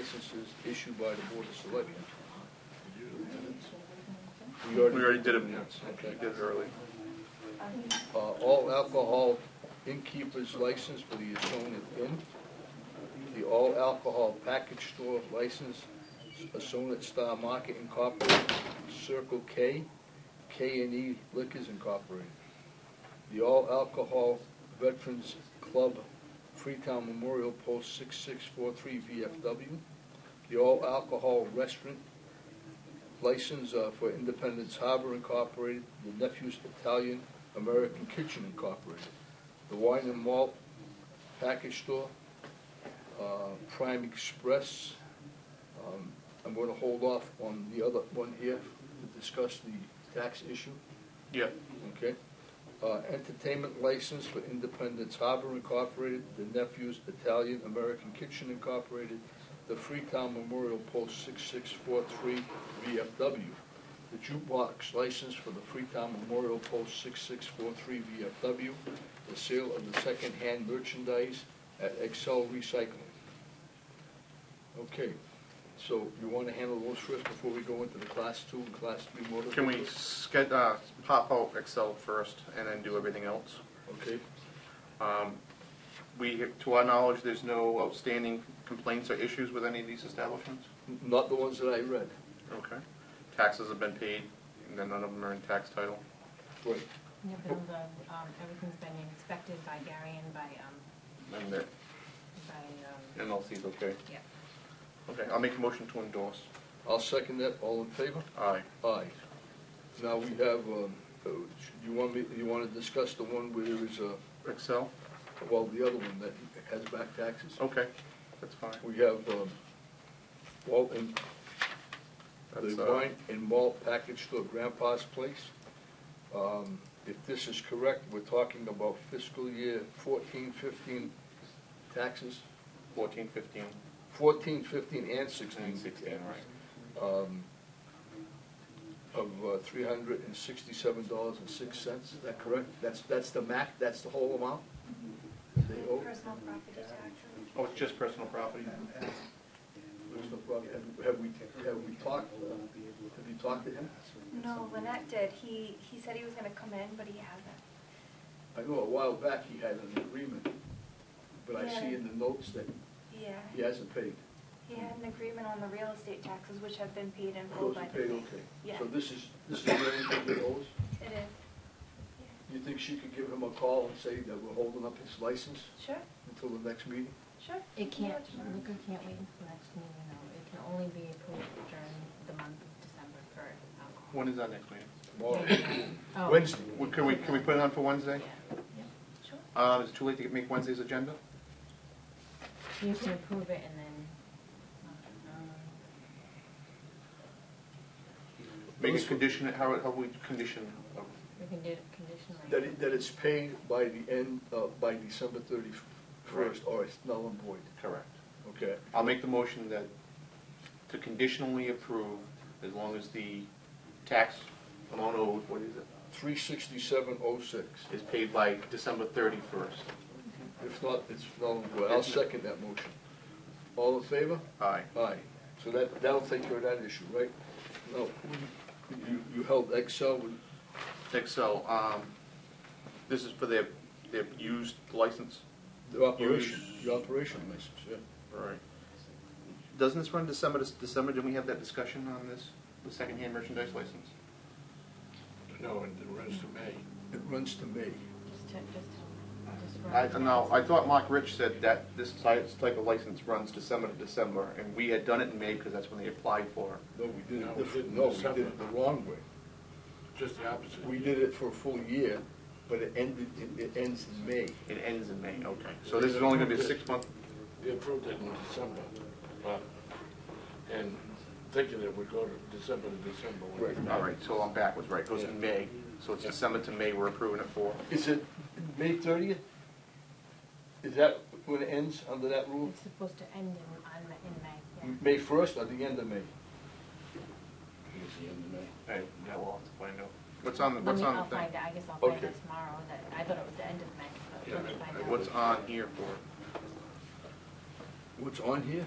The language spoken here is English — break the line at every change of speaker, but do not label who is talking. licenses issued by the Board of Selectmen.
We already did it, we
Okay.
did it early.
Uh, all alcohol innkeeper's license for the Assonet Inn, the all alcohol package store license, Assonet Star Market Incorporated, Circle K, K and E Liquors Incorporated, the all alcohol Veterans Club, Freetown Memorial Post six six four three VFW, the all alcohol restaurant license uh, for Independence Harbor Incorporated, the Nephews Italian American Kitchen Incorporated, the Wine and Malt Package Store, uh, Prime Express. Um, I'm going to hold off on the other one here to discuss the tax issue,
Yeah,
okay? Uh, Entertainment license for Independence Harbor Incorporated, the Nephews Italian American Kitchen Incorporated, the Freetown Memorial Post 6643 VFW. The jukebox license for the Freetown Memorial Post 6643 VFW. The sale of the second-hand merchandise at Excel Recycling. Okay, so you want to handle those first before we go into the Class 2 and Class 3 motor?
can we ske- uh, pop out Excel first and then do everything else?
Okay,
Um, We, to our knowledge, there's no outstanding complaints or issues with any of these establishments?
N- not the ones that I read.
Okay. Taxes have been paid, and then none of them are in tax title?
Right.
No build up, um, everything's been inspected by Gary and by, um,
And the
by, um,
NLC's okay?
yeah.
Okay, I'll make a motion to endorse.
I'll second that. All in favor?
Aye.
Aye. Now we have, um, uh, you want me, you want to discuss the one where there is a,
Excel?
well, the other one that has back taxes?
Okay, that's fine.
We have, um, Walton, the
That's, uh,
wine and malt package store, Grandpa's Place. Um, if this is correct, we're talking about fiscal year fourteen, fifteen taxes,
Fourteen, fifteen,
fourteen, fifteen, and sixteen.
and sixteen, right?
um, of uh, three hundred and sixty-seven dollars and six cents, is that correct? That's, that's the max, that's the whole amount? They owe,
Personal property taxes.
Oh, it's just personal property?
there's no problem. Have- have we, have we talked, uh, have you talked to him?
No, Lynette did. He, he said he was gonna come in, but he hasn't.
I know a while back he had an agreement, but I see in the notes that he
Yeah,
hasn't paid.
he had an agreement on the real estate taxes, which have been paid in full
Those
by
are
the
paid,
bank.
okay.
Oh, Yeah,
So this is, this is where he owes?
it is.
You think she could give him a call and say that we're holding up his license
Yeah. Sure,
until the next meeting?
sure.
It can't,
Yeah, sure.
liquor can't wait until next meeting, though. It can only be approved during the month of December for alcohol.
When is our next meeting?
Oh.
Wednesday.
Well, Can we, can we put it on for
Yeah.
Wednesday?
Sure.
Uh, is it too late to make Wednesday's agenda?
You can approve it and then, um,
Make it
Those-
condition, how, how we condition, uh,
we can do it conditionally.
That it, that it's paid by the end, uh, by December thirty-first, or it's null and void,
correct.
okay?
I'll make the motion that to conditionally approve as long as the tax amount owed, what is it,
Three sixty-seven oh six,
is paid by December thirty-first.
if not, it's null and void, I'll second that motion. All in favor?
Aye.
Aye, so that, that'll take care of that issue, right? No, you, you held Excel with,
Excel, um, this is for their, their used license?
the operation, the operation license, yeah.
Right. Doesn't this run December, to December, didn't we have that discussion on this, the secondhand merchandise license?
No, and it runs to May.
It runs to May.
Just to, just to, just for.
I, no, I thought Mark Rich said that this ty- type of license runs December to December, and we had done it in May because that's when they applied for it.
No, we did
No,
it,
we
diff-
did
no, we
December.
did it the wrong way.
Just the opposite.
We did it for a full year, but it ended, it- it ends in May.
It ends in May, okay. So this is only gonna be a six-month,
They approved it in December, but, and thinking it would go to December to December. when it-
Right.
all right, so I'm backwards, right, goes in May, so it's December to May we're approving it for.
Is it May thirtieth? Is that when it ends under that rule?
It's supposed to end in, on, in May, yeah.
May first or the end of May?
It's the end of May.
Hey, now we'll have to find out. What's on, the
Let
what's
me,
on the
I'll
thing?
find out, I guess I'll find
Okay.
out tomorrow, that, I thought it was the end of May, but
Yeah,
let's
but
find out.
What's on here for?
What's on here?